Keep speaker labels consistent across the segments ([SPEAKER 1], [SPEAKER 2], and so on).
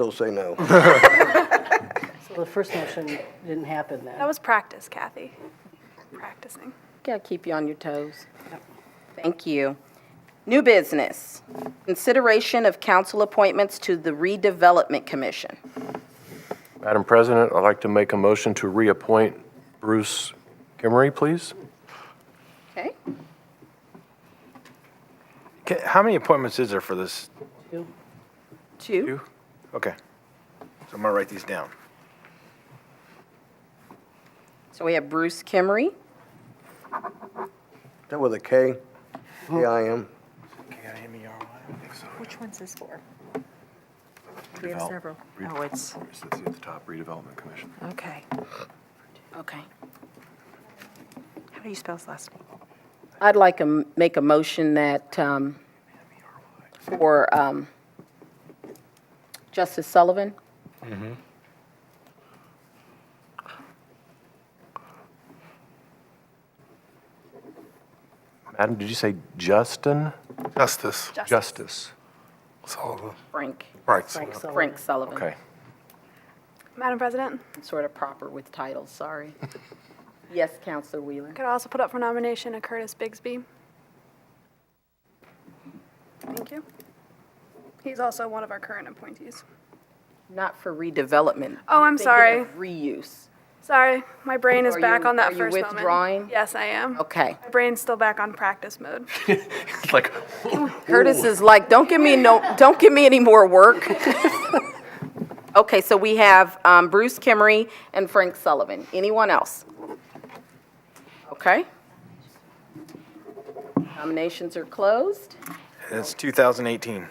[SPEAKER 1] Still say no.
[SPEAKER 2] So the first motion didn't happen then.
[SPEAKER 3] That was practice, Kathy. Practicing.
[SPEAKER 4] Gotta keep you on your toes. Thank you. New business, consideration of council appointments to the redevelopment commission.
[SPEAKER 5] Madam President, I'd like to make a motion to reappoint Bruce Kimmery, please.
[SPEAKER 4] Okay?
[SPEAKER 6] Ca- How many appointments is there for this?
[SPEAKER 4] Two.
[SPEAKER 6] Two? Okay. So I'm gonna write these down.
[SPEAKER 4] So we have Bruce Kimmery.
[SPEAKER 1] That with a K? K-I-M?
[SPEAKER 7] Which one's this for? We have several. Oh, it's,
[SPEAKER 5] It's at the top, Redevelopment Commission.
[SPEAKER 7] okay.
[SPEAKER 4] Okay.
[SPEAKER 7] How do you spell his last name?
[SPEAKER 4] I'd like to m- make a motion that, um, for, um, Justice Sullivan.
[SPEAKER 5] Madam, did you say Justin?
[SPEAKER 8] Justice
[SPEAKER 5] Justice.
[SPEAKER 8] Sullivan.
[SPEAKER 4] Frank,
[SPEAKER 8] Right.
[SPEAKER 2] Frank Sullivan.
[SPEAKER 4] Frank Sullivan.
[SPEAKER 5] Okay.
[SPEAKER 3] Madam President,
[SPEAKER 4] Sort of proper with titles, sorry. Yes, Counselor Wheeler.
[SPEAKER 3] could I also put up for nomination a Curtis Bigsby? Thank you. He's also one of our current appointees.
[SPEAKER 4] Not for redevelopment.
[SPEAKER 3] Oh, I'm
[SPEAKER 4] thinking
[SPEAKER 3] sorry.
[SPEAKER 4] of Reuse.
[SPEAKER 3] Sorry, my brain is
[SPEAKER 4] Are
[SPEAKER 3] back
[SPEAKER 4] you-
[SPEAKER 3] on that
[SPEAKER 4] are you
[SPEAKER 3] first moment.
[SPEAKER 4] withdrawing?
[SPEAKER 3] Yes, I am.
[SPEAKER 4] Okay.
[SPEAKER 3] My brain's still back on practice mode.
[SPEAKER 5] Like,
[SPEAKER 4] Curtis is like, don't give me no, don't give me any more work. Okay, so we have um, Bruce Kimmery and Frank Sullivan. Anyone else? Okay. Nominations are closed.
[SPEAKER 6] And it's 2018.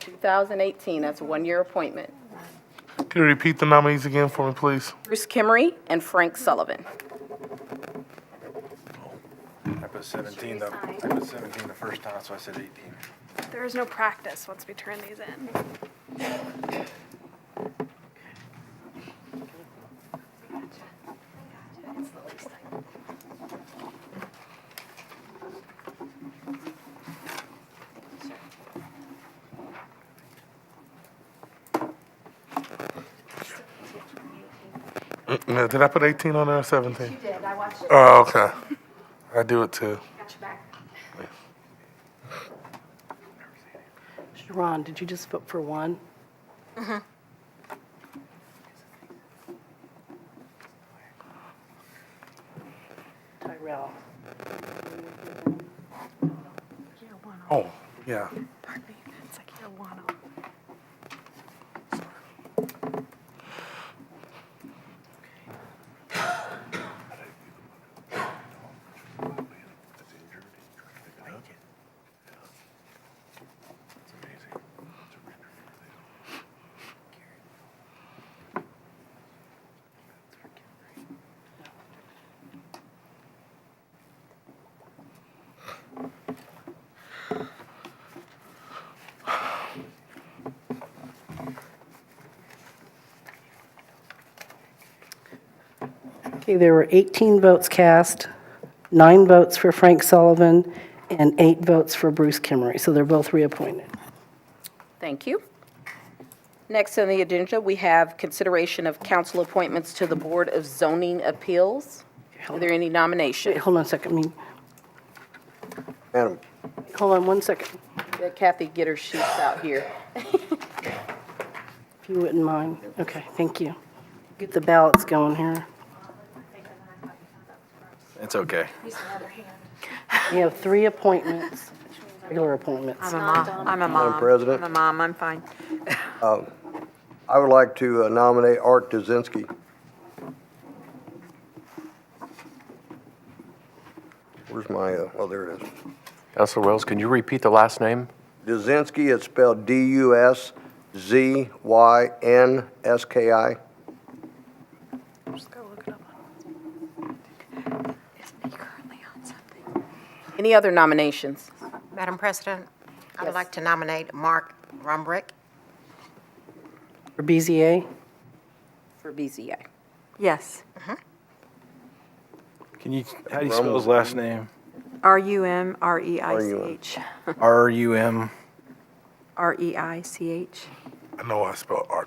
[SPEAKER 4] 2018, that's a one-year appointment.
[SPEAKER 8] Can you repeat the nominees again for me, please?
[SPEAKER 4] Bruce Kimmery and Frank Sullivan.
[SPEAKER 6] I put 17 the, I put 17 the first time, so I said 18.
[SPEAKER 3] There is no practice once we turn these in.
[SPEAKER 8] No, did I put 18 on there or 17? You did, I watched it. Oh, okay. I do it too.
[SPEAKER 2] Ron, did you just vote for one? Tyrell.
[SPEAKER 7] Year one,
[SPEAKER 8] Oh, yeah.
[SPEAKER 7] pardon me. It's like year one.
[SPEAKER 2] Okay, there were 18 votes cast, nine votes for Frank Sullivan, and eight votes for Bruce Kimmery, so they're both reappointed.
[SPEAKER 4] Thank you. Next on the agenda, we have consideration of council appointments to the Board of Zoning Appeals. Are there any
[SPEAKER 2] Wait,
[SPEAKER 4] nominations?
[SPEAKER 2] hold on a second, I mean,
[SPEAKER 1] Madam,
[SPEAKER 2] hold on one second,
[SPEAKER 4] Let Kathy get her sheets out here.
[SPEAKER 2] if you wouldn't mind. Okay, thank you. Get the ballots going here.
[SPEAKER 6] It's okay.
[SPEAKER 2] We have three appointments, regular appointments.
[SPEAKER 7] I'm a mom, I'm a mom.
[SPEAKER 1] President?
[SPEAKER 7] I'm a mom, I'm fine.
[SPEAKER 1] I would like to uh, nominate Art Dzinski. Where's my, uh, oh, there it is.
[SPEAKER 5] Counselor Wells, can you repeat the last name?
[SPEAKER 1] Dzinski, it's spelled D-U-S-Z-Y-N-S-K-I.
[SPEAKER 7] Just go look it up. Isn't he currently on something?
[SPEAKER 4] Any other nominations?
[SPEAKER 9] Madam President, I
[SPEAKER 4] Yes.
[SPEAKER 9] would like to nominate Mark Rumbrick.
[SPEAKER 2] For BZA,
[SPEAKER 4] for BZA.
[SPEAKER 7] Yes.
[SPEAKER 6] Can you, how do you spell his last name?
[SPEAKER 7] E R-U-M-R-E-I-C-H.
[SPEAKER 6] R-U-M.
[SPEAKER 7] E R-E-I-C-H.
[SPEAKER 8] I know I spelled art.